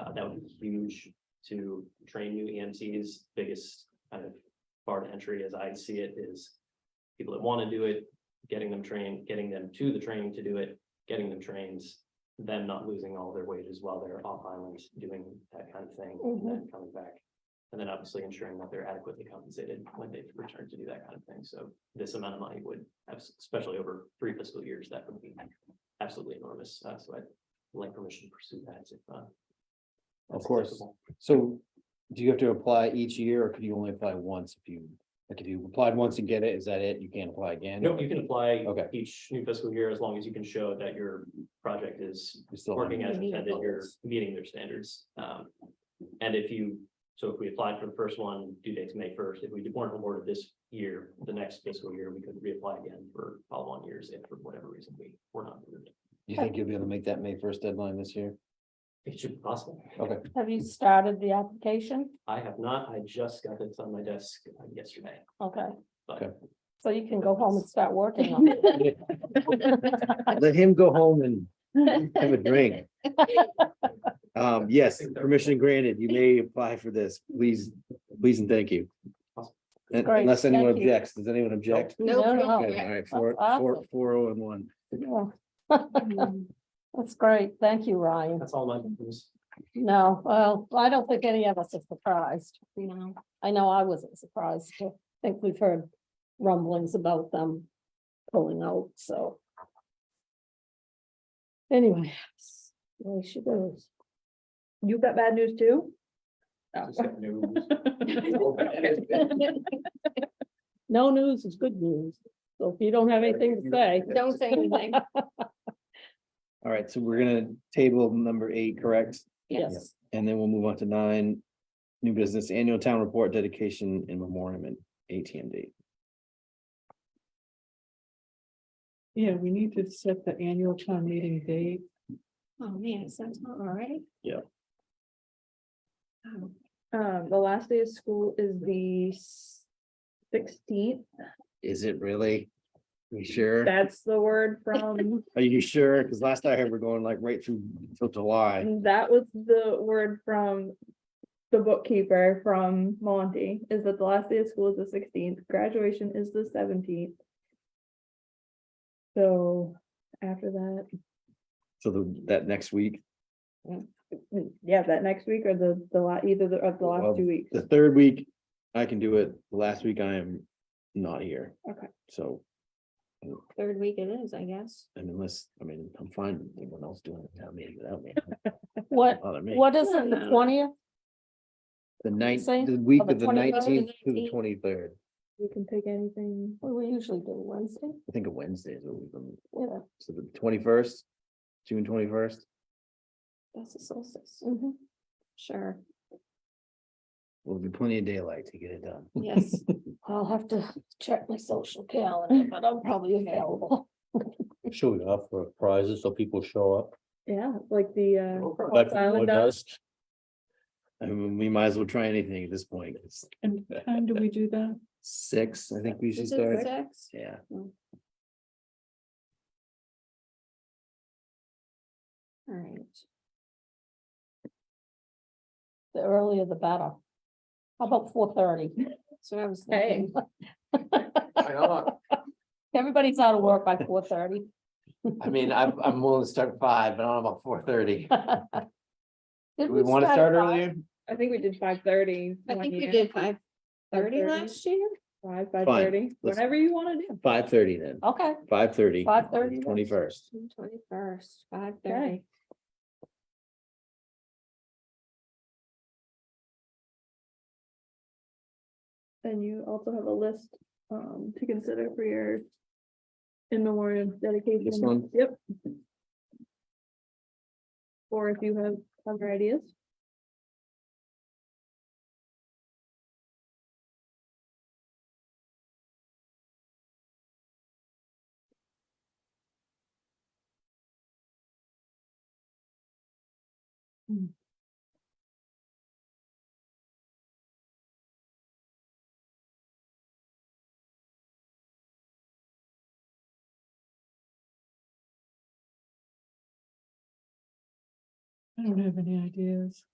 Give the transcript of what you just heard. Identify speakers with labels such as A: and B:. A: Uh, that was huge to train new EMTs. Biggest kind of bar to entry as I see it is people that want to do it, getting them trained, getting them to the training to do it, getting them trained, them not losing all their wages while they're off island doing that kind of thing, and then coming back. And then obviously ensuring that they're adequately compensated when they return to do that kind of thing. So this amount of money would, especially over three fiscal years, that would be absolutely enormous. Uh, so I'd like permission to pursue that if, uh,
B: Of
A: that's
B: course.
A: acceptable.
B: So do you have to apply each year or could you only apply once if you, like if you applied once and get it, is that it? You can't apply again?
A: No, you can apply
B: Okay.
A: each new fiscal year as long as you can show that your project is
B: You're still
A: working
B: on-
A: as
C: Meeting
A: intended, you're
B: goals.
A: meeting their standards. Um, and if you, so if we applied for the first one, due date's May first, if we weren't awarded this year, the next fiscal year, we could reapply again for follow-on years if for whatever reason we were not. approved.
B: You think you'll be able to make that May first deadline this year?
A: It should be possible.
B: Okay.
C: Have you started the application?
A: I have not, I just got this on my desk uh, yesterday.
C: Okay.
A: Okay.
C: So you can go home and start working on it.
B: Let him go home and have a drink. Um, yes, permission granted. You may apply for this. Please, please and thank you.
A: Awesome.
B: Un-
C: Great,
B: Unless anyone
C: thank you.
B: objects, does anyone object?
C: No,
D: No,
C: no.
B: Okay, all right, four,
C: That's
B: four,
C: awesome.
B: four, oh, and one.
C: Yeah.
D: Oh,
C: That's great. Thank you, Ryan.
A: That's all my, news.
C: No, well, I don't think any of us are surprised.
D: No.
C: I know I wasn't surprised. I think we've heard rumblings about them pulling out, so. Anyway, there she goes.
D: You got bad news too?
A: just got news.
C: No news is good news. So if you don't have anything to say.
D: Don't say anything.
B: All right, so we're gonna table number eight, correct?
C: Yes,
B: And then we'll move on to nine, new business annual town report dedication and memoriam and ATMD.
E: Yeah, we need to set the annual town meeting date.
D: Oh, man, so that's not all right.
B: Yeah.
D: Um, the last day of school is the sixteenth.
B: Is it really? You sure?
D: That's the word from,
B: Are you sure? Because last I heard, we're going like right through till July.
D: that was the word from the bookkeeper from Monty, is that the last day of school is the sixteenth, graduation is the seventeenth. So after that,
B: So the, that next week,
D: mm, yeah, that next week or the, the la, either the- of the
B: Well,
D: last two weeks.
B: the third week, I can do it. The Last week I am not here.
D: Okay.
B: So,
D: Third week it is, I guess.
B: and unless, I mean, I'm fine with anyone else doing a town meeting without me.
C: what,
B: Bother me.
C: what is it, the twentieth?
B: The night,
C: say?
B: the week
C: Oh, the
B: of the
C: 23rd?
B: nineteenth to the twenty-third,
D: You can pick anything.
C: We usually do Wednesday,
B: I think a Wednesday is what we've been,
C: yeah.
B: so the twenty-first, June twenty-first.
D: That's a solstice.
C: mhm.
D: Sure.
B: Will be plenty of daylight to get it done.
D: Yes.
C: I'll have to check my social calendar, but I'm probably available.
F: Should we offer prizes so people show up?
D: Yeah, like the,
A: No problem.
D: uh.
F: Like
D: silent
F: with
D: dogs.
F: us?
B: I mean, we might as well try anything at this point. It's
E: And what time do we do that?
B: six, I think we should
D: Is it
B: start.
D: six?
B: Yeah.
D: All right.
C: The earlier the better. How about four thirty?
D: So I was
C: Hey.
D: thinking.
C: Everybody's out of work by four thirty.
B: I mean, I'm, I'm willing to start at five, but I don't know about four thirty.
C: Did
B: Do we want to start
C: at five?
B: earlier?
D: I think we did five thirty.
C: I think we did five thirty
D: 5:30?
C: last year.
D: Five, five
B: Fine,
D: thirty,
B: let's-
D: whatever you wanna do.
B: Five thirty then,
C: Okay,
B: five thirty.
C: 5:30 then.
B: Twenty-first.
D: Twenty-first, five
C: 5:30.
D: And you also have a list, um, to consider for your in memoriam dedication.
B: This one?
D: Yep. Or if you have other ideas.
E: I don't have any ideas.